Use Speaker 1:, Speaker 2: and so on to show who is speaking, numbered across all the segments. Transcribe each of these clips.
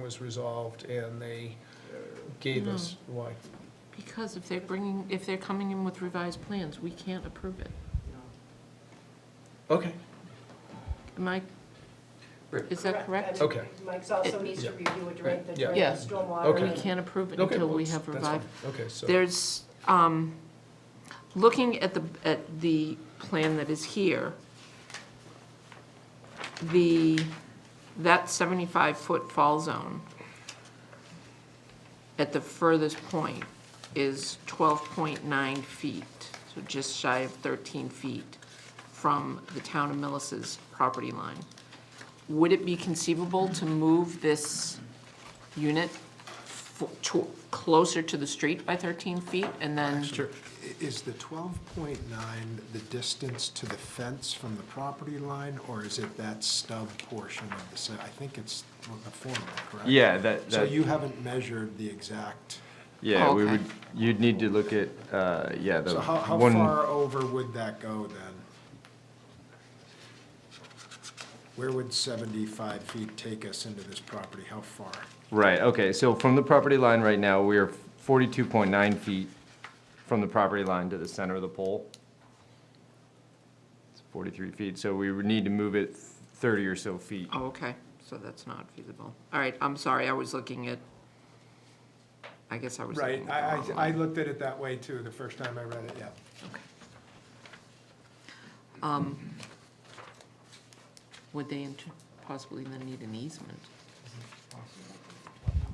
Speaker 1: was resolved and they gave us,
Speaker 2: Mm-hmm.
Speaker 1: why?
Speaker 2: Because if they're bringing, if they're coming in with revised plans, we can't approve it.
Speaker 1: Okay,
Speaker 2: Am I, is that
Speaker 1: I
Speaker 2: correct?
Speaker 1: mean, Okay.
Speaker 3: Mike's
Speaker 2: also
Speaker 3: also
Speaker 2: It-
Speaker 3: needs
Speaker 1: to
Speaker 3: to review it
Speaker 1: during
Speaker 3: during
Speaker 1: the-
Speaker 3: the,
Speaker 1: during
Speaker 2: the Yeah.
Speaker 1: Okay.
Speaker 3: stormwater.
Speaker 2: We can't approve it
Speaker 1: okay.
Speaker 2: until we
Speaker 1: well,
Speaker 2: have
Speaker 1: that's fine.
Speaker 2: revised.
Speaker 1: Okay, so,
Speaker 2: There's, um, looking at the, at the plan that is here, the, that 75-foot fall zone at the furthest point is 12.9 feet, so just shy of 13 feet from the town of Millis's property line. Would it be conceivable to move this unit fo- to- closer to the street by 13 feet and then?
Speaker 4: Sure. I- Is the 12.9 the distance to the fence from the property line, or is it that stub portion of the, se- I think it's the formula, correct?
Speaker 5: Yeah, that,
Speaker 4: So
Speaker 5: that,
Speaker 4: you haven't measured the exact,
Speaker 5: yeah, we
Speaker 2: Okay.
Speaker 5: would, you'd need to look at, uh, yeah, the
Speaker 4: so how, how
Speaker 5: one-
Speaker 4: far over would that go then? Where would 75 feet take us into this property? How far?
Speaker 5: Right, okay, so from the property line right now, we are forty-two point nine feet from the property line to the center of the pole. It's Forty-three feet, so we would need to move it thirty or so feet.
Speaker 2: Oh, okay, so that's not feasible. All right, I'm sorry, I was looking at, I guess I was looking
Speaker 4: Right,
Speaker 2: at the
Speaker 4: I,
Speaker 2: wrong
Speaker 4: I, I
Speaker 2: one.
Speaker 4: looked at it that way too, the first time I read it, yeah.
Speaker 2: Okay. Um, Would they inter- possibly then need an easement?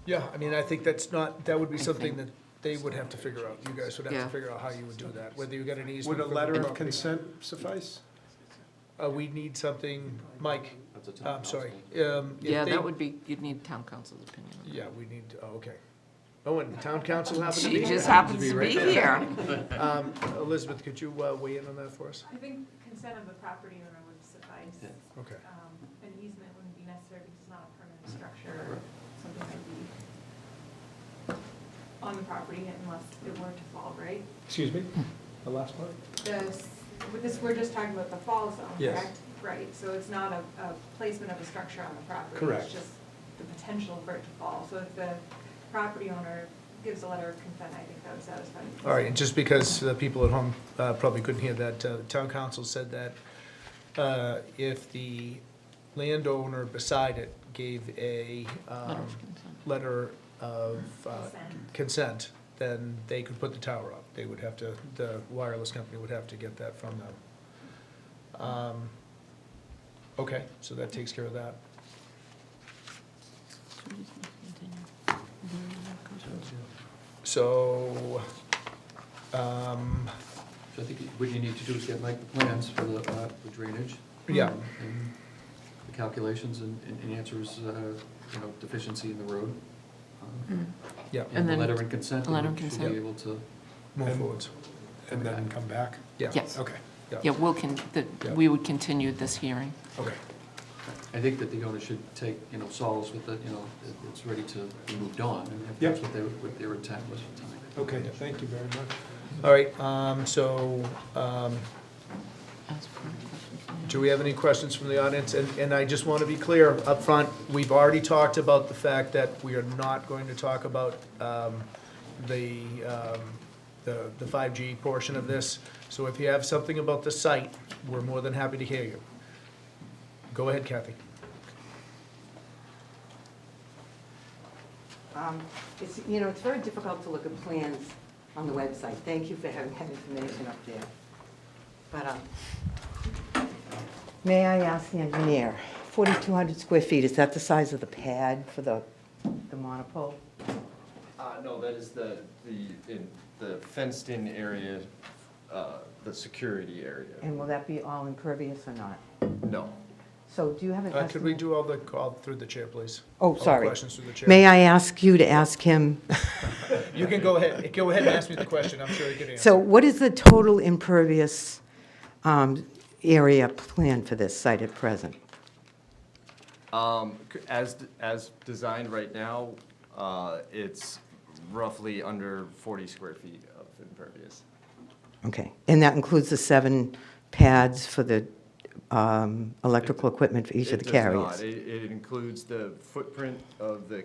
Speaker 1: yeah, I mean, I think that's not, that would be
Speaker 2: I
Speaker 1: something that
Speaker 2: think-
Speaker 1: they would have to figure out. You guys would have
Speaker 2: Yeah.
Speaker 1: to figure out how you would do that, whether you got an easement.
Speaker 4: Would a
Speaker 1: from the
Speaker 4: letter of
Speaker 1: property.
Speaker 4: consent suffice?
Speaker 1: Uh, we need something, Mike, Uh, I'm sorry. um, if
Speaker 2: Yeah,
Speaker 1: they-
Speaker 2: that would be, you'd need town council's opinion. on
Speaker 1: Yeah, we need, oh, okay. Oh, and town council
Speaker 2: that.
Speaker 1: happens to be
Speaker 2: She
Speaker 1: here.
Speaker 2: just happens to
Speaker 1: right
Speaker 2: be
Speaker 1: there.
Speaker 2: here.
Speaker 1: Um, Elizabeth, could you uh, weigh in on that for us?
Speaker 6: I think consent of the property owner would suffice.
Speaker 1: Okay.
Speaker 6: Um, An easement wouldn't be necessary because it's not a permanent structure, something might be on the property unless it were to fall, right?
Speaker 1: Excuse me, the last part?
Speaker 6: This, with this, we're just talking about the fall zone,
Speaker 1: Yes.
Speaker 6: correct? Right, so it's not a, a placement of a structure on the property.
Speaker 1: Correct.
Speaker 6: It's just the potential for it to fall. So if the property owner gives a letter of consent, I think that would satisfy. the
Speaker 1: All right, and just because uh, people at home uh, probably couldn't hear that, uh, town council said that uh, if the landowner beside it gave a um,
Speaker 2: Letter of consent.
Speaker 1: letter of uh,
Speaker 6: Consent.
Speaker 1: consent, then they could put the tower up. They would have to, the wireless company would have to get that from them. Um, Okay, so that takes care of that. So, um,
Speaker 7: So I think what you need to do is get Mike the plans for the uh, the drainage Um,
Speaker 1: yeah,
Speaker 7: and the calculations and and- and answers, uh, you know, deficiency in the road. um,
Speaker 1: yeah,
Speaker 2: Mm, And
Speaker 7: And the
Speaker 2: then
Speaker 7: letter in consent,
Speaker 2: a letter
Speaker 7: and
Speaker 2: of
Speaker 7: we should
Speaker 2: consent.
Speaker 7: be able to,
Speaker 1: move forwards.
Speaker 4: And then come back?
Speaker 1: Yeah.
Speaker 2: Yes.
Speaker 4: Okay.
Speaker 2: Yeah, we'll con, that,
Speaker 1: Yeah.
Speaker 2: we would continue this hearing.
Speaker 1: Okay,
Speaker 7: I think that the owner should take, you know, solace with the, you know, that it's ready to be moved on, and if that's
Speaker 4: Yep.
Speaker 7: what their, what their intent was at the time.
Speaker 4: Okay, thank you very much.
Speaker 1: all right, um, so, um,
Speaker 2: Ask for questions.
Speaker 1: do we have any questions from the audience? And, and I just want to be clear up front. we've already talked about the fact that we are not going to talk about, um, the, um, the, the five G portion of this. So if you have something about the site, we're more than happy to hear you. Go ahead, Kathy.
Speaker 8: Um, It's, you know, it's very difficult to look at plans on the website. Thank you for having that information up there. But, um, may I ask the engineer, 4,200 square feet, is that the size of the pad for the, the monopole?
Speaker 5: Uh, no, that is the, the, in, the fenced-in area, uh, the security area.
Speaker 8: And will that be all impervious or not?
Speaker 5: No.
Speaker 8: So do you have an
Speaker 1: Uh,
Speaker 8: estimate?
Speaker 1: could we do all the, all through the chair, please? All
Speaker 8: Oh,
Speaker 1: the
Speaker 8: sorry.
Speaker 1: Questions through the chair.
Speaker 8: May I ask you to ask him,
Speaker 1: You can go ahead, go ahead and ask me the question, I'm sure you can answer.
Speaker 8: so what is the total impervious um, area plan for this site at present?
Speaker 5: Um, c- as, d- as designed right now, uh, it's roughly under forty square feet of impervious.
Speaker 8: Okay, and that includes the seven pads for the um, electrical equipment for each of
Speaker 5: It
Speaker 8: the
Speaker 5: does
Speaker 8: carriers?
Speaker 5: not. It, it includes the footprint of the